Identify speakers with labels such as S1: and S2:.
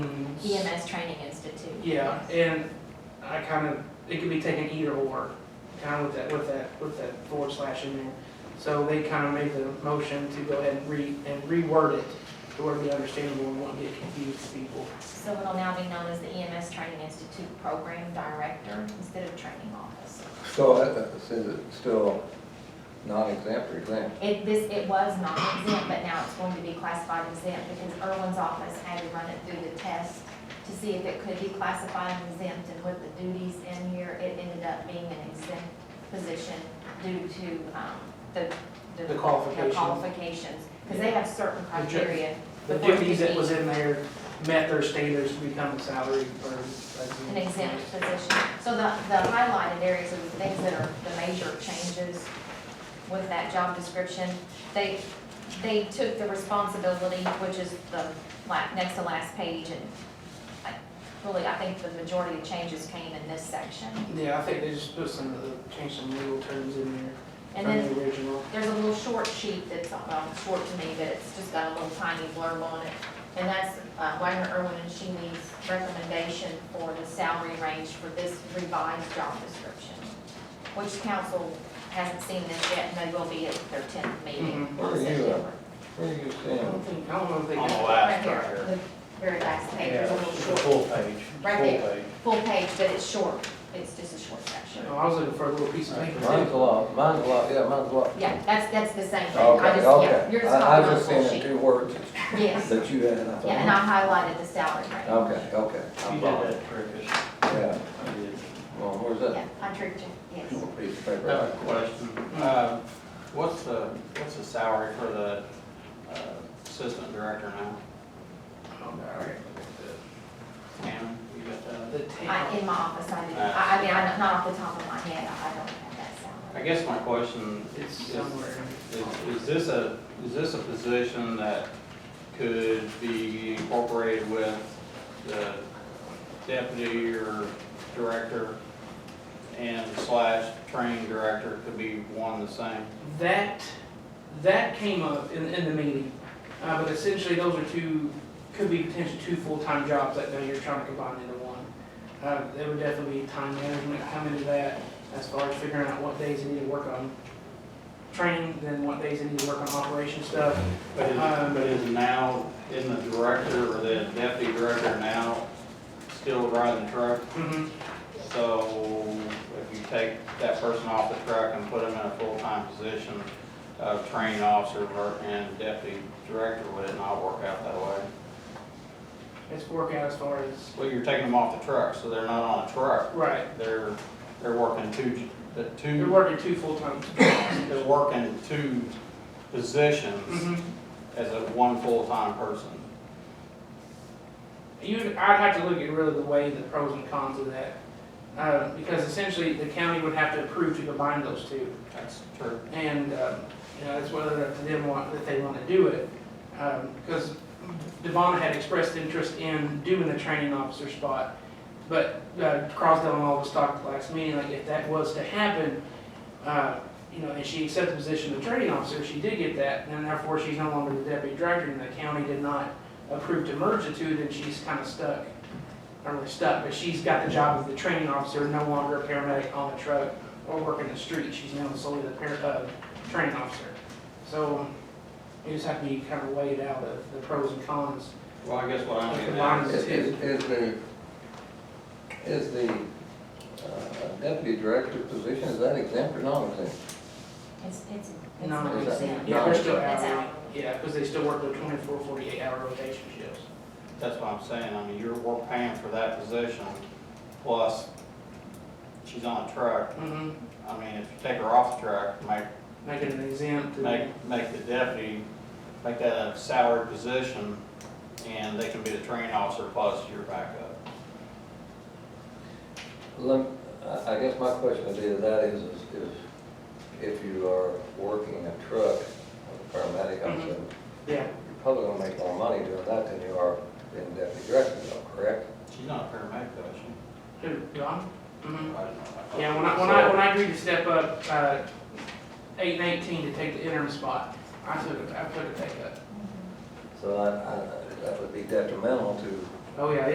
S1: EMS E Training Institute.
S2: Yeah, and I kind of, it could be taken either or, kind of with that, with that, with that forward slash in there. So they kind of made the motion to go ahead and re, and reword it to where it be understandable and won't get confused to people.
S1: So it'll now be known as the EMS Training Institute Program Director instead of Training Officer.
S3: So that, that says it's still non-exempt or exempt.
S1: It, this, it was non-exempt, but now it's going to be classified exempt because Irwin's office had to run it through the test to see if it could be classified exempt and with the duties in here, it ended up being an exempt position due to, um, the, the.
S2: The qualifications.
S1: The qualifications, because they have certain
S2: The ju-
S1: criteria.
S2: The
S1: before it
S2: duties
S1: could
S2: that
S1: be
S2: was in there met their standards to become a salary or. a-
S1: An exempt position. So the, the highlighted areas are the things that are the major changes with that job description. They, they took the responsibility, which is the la, next to last page, and I, really, I think the majority of changes came in this section.
S2: Yeah, I think they just put some, of the- changed some legal terms in there
S1: And
S2: from
S1: then
S2: the original.
S1: there's a little short sheet that's, um, short to me, but it's just got a little tiny blurb on it. And that's uh, Wagner Irwin and Sheeney's recommendation for the salary range for this revised job description, which council hasn't seen this yet, and they will be at their tenth meeting
S2: Mhm.
S3: Where are
S1: on
S3: you at?
S1: September.
S3: Where do you
S2: I don't
S3: stand?
S2: think, I don't know if they.
S4: On the
S1: Right
S4: last
S1: here,
S4: right here.
S1: the very last page, there's a little
S4: It's a
S1: short,
S4: Full page.
S1: Right
S4: full
S1: there.
S4: page.
S1: full page, but it's short, it's just a short section.
S2: No, Oh, I was looking for a little piece of paper.
S3: Mine's a lot, mine's a lot, yeah, mine's a lot.
S1: Yeah, that's, that's the same thing, I
S3: Okay,
S1: just, yeah,
S3: okay.
S1: yours is
S3: I,
S1: not
S3: I
S1: on the
S3: just
S1: full
S3: seen the
S1: sheet.
S3: two words
S1: Yes,
S3: that you had and I
S1: yeah, and I
S3: thought, "Hmm,
S1: highlighted the salary range.
S3: okay, okay,
S4: You
S3: I'm
S4: did
S3: following.
S4: that trick.
S3: Yeah,
S4: I did.
S3: well, where's
S1: Yeah,
S3: that
S1: I tricked you, yes.
S3: little piece of
S4: I have
S3: paper?
S4: a question. Uh, What's the, what's the salary for the uh, assistant director now?
S2: Oh, no, I gotta look at that.
S4: Pam, you got that?
S2: The
S1: I,
S2: town,
S1: in my office, I do, I, I mean, I, not off the top of my head, I don't have that salary.
S4: I guess my question
S2: it's
S4: is,
S2: somewhere.
S4: is- is this a, is this a position that could be incorporated with the deputy or director and slash training director could be one and the same?
S2: That, that came up in, in the meeting, uh, but essentially those are two, could be potentially two full-time jobs that now you're trying to combine into one. Uh, there would definitely be time management come into that as far as figuring out what days you need to work on training, then what days you need to work on operation stuff.
S4: But is,
S2: Um,
S4: but is now, in the director or the deputy director now still riding the truck?
S2: Mhm.
S4: So if you take that person off the truck and put them in a full-time position of training officer ver- and deputy director, would it not work out that way?
S2: It's working out as far as,
S4: Well, you're taking them off the truck, so they're not on a truck.
S2: right,
S4: They're, they're working two, j- the
S2: you're
S4: two,
S2: working two full-time.
S4: they're working two positions
S2: Mhm.
S4: as a one full-time person.
S2: You, I'd have to look at really the way the pros and cons of that, uh, because essentially the county would have to approve to combine those two.
S4: That's true.
S2: And, um, you know, it's whether up to them want, that they want to do it. Um, because Devon had expressed interest in doing the training officer spot. But, uh, Crosdale and all of us talked at the last meeting, like if that was to happen, uh, you know, and she accepted the position of training officer, she did get that, and therefore she's no longer the deputy director, and the county did not approve to merge the two, then she's kind of stuck. Not really stuck, but she's got the job of the training officer, no longer a paramedic on the truck or working the street. She's now solely the parent, uh, training officer. So um, you just have to be kind of weighed out of the pros and cons.
S4: Well, I guess what I'm getting
S2: Combine
S4: at
S2: them.
S3: Is, is is the, is the uh, deputy director position, is that exempt or non-exempt?
S1: It's, it's, it's
S2: No,
S1: not
S3: it's-
S1: exempt.
S2: Yeah, they're still
S1: That's
S2: hourly.
S1: hourly.
S2: Yeah, because they still work their 24, 48 hour rotation shifts.
S4: That's what I'm saying, I mean, you're, we're paying for that position, plus she's on a truck.
S2: Mm-hmm.
S4: I mean, if you take her off the truck, make,
S2: Make it an exempt. and-
S4: make, make the deputy, make that a salary position, and they can be the training officer plus your backup.
S3: Lem- I I guess my question would be, to that is, is is if you are working a truck, a paramedic, I'm
S2: Mhm.
S3: assuming,
S2: Yeah,
S3: you're probably gonna make more money doing that than you are being deputy director, though, correct?
S4: She's not a paramedic, though, is she?
S2: who, Don?
S4: I
S2: Mm-hmm.
S4: don't know.
S2: Yeah, when I, when I, when I agreed to step up, uh, eight and eighteen to take the interim spot, I took, it- I took a pay cut.
S3: So I, I, that would be detrimental to
S2: Oh, yeah,